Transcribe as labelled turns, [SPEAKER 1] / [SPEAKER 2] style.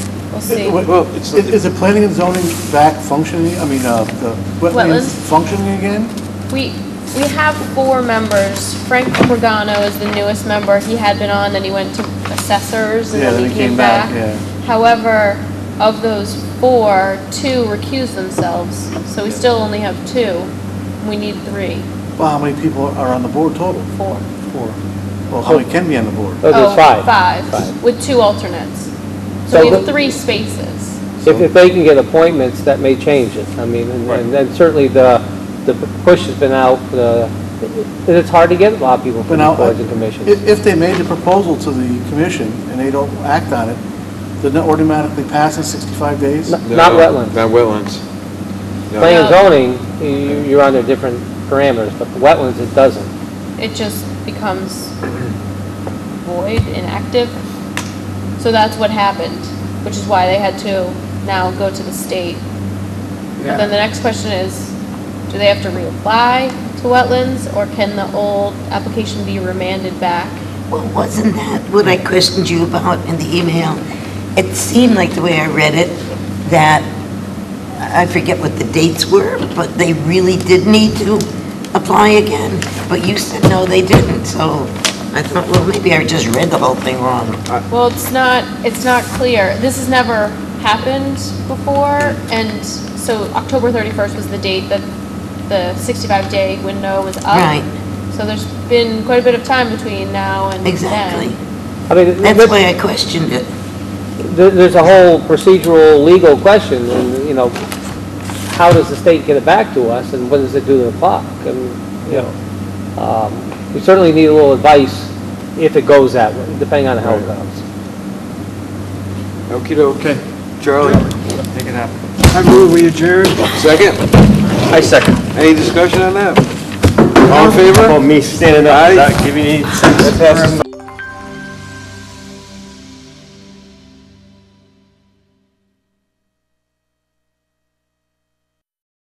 [SPEAKER 1] We'll see.
[SPEAKER 2] Wait,
[SPEAKER 3] Well, it's-
[SPEAKER 2] Is is the planning and zoning back functioning, I mean, uh, the wetlands
[SPEAKER 1] Wetlands.
[SPEAKER 2] functioning again?
[SPEAKER 1] We, we have four members. Frank Pagano is the newest member. He had been on, then he went to assessors, and
[SPEAKER 2] Yeah,
[SPEAKER 1] then he came back.
[SPEAKER 2] yeah.
[SPEAKER 1] However, of those four, two recused themselves, so we still only have two. We need three,
[SPEAKER 2] Well, how many people are on the board total?
[SPEAKER 1] four.
[SPEAKER 2] Four. Well, how many can be on the board?
[SPEAKER 3] Oh, there's
[SPEAKER 1] Oh,
[SPEAKER 3] five.
[SPEAKER 1] Five,
[SPEAKER 3] Five.
[SPEAKER 1] with two alternates.
[SPEAKER 3] So
[SPEAKER 1] So we have
[SPEAKER 3] the-
[SPEAKER 1] three spaces.
[SPEAKER 3] If, if they can get appointments, that may change it. I mean, and- and then certainly the, the push has been out, uh, it- it's hard to get a lot of people
[SPEAKER 2] But
[SPEAKER 3] from
[SPEAKER 2] now,
[SPEAKER 3] these boards and
[SPEAKER 2] If,
[SPEAKER 3] commissions.
[SPEAKER 2] if they made the proposal to the commission and they don't act on it, doesn't it automatically pass in 65 days?
[SPEAKER 3] No. Not
[SPEAKER 4] No,
[SPEAKER 3] wetlands.
[SPEAKER 4] Not wetlands. No.
[SPEAKER 3] Planning and
[SPEAKER 1] No.
[SPEAKER 3] zoning, you- you're under different parameters, but the wetlands, it doesn't.
[SPEAKER 1] it just becomes void, inactive. So that's what happened, which is why they had to now go to the state. But then the next question is, do they have to reapply to wetlands, or can the old application be remanded back?
[SPEAKER 5] Well, wasn't that what I questioned you about in the email? It seemed like the way I read it, that, I forget what the dates were, but they really did need to apply again. But you said no, they didn't, so I thought, well, maybe I just read the whole thing wrong.
[SPEAKER 1] Well, it's not, it's not clear. This has never happened before, and so October 31st was the date that the 65-day window was up.
[SPEAKER 5] Right.
[SPEAKER 1] So there's been quite a bit of time between now and then.
[SPEAKER 5] Exactly.
[SPEAKER 3] I mean, th-
[SPEAKER 5] That's why I questioned it.
[SPEAKER 3] there- there's a whole procedural, legal question, and, you know, how does the state get it back to us, and what does it do to the clock? And, you know, um, we certainly need a little advice if it goes that way, depending on how it
[SPEAKER 4] Right.
[SPEAKER 3] goes.
[SPEAKER 4] Okey doke. Charlie, make it happen.
[SPEAKER 6] I move we adjourn.
[SPEAKER 4] Second?
[SPEAKER 7] I second.
[SPEAKER 4] Any discussion on that? All in favor?
[SPEAKER 7] Well, me standing up,
[SPEAKER 4] Aye.
[SPEAKER 7] not giving any sense.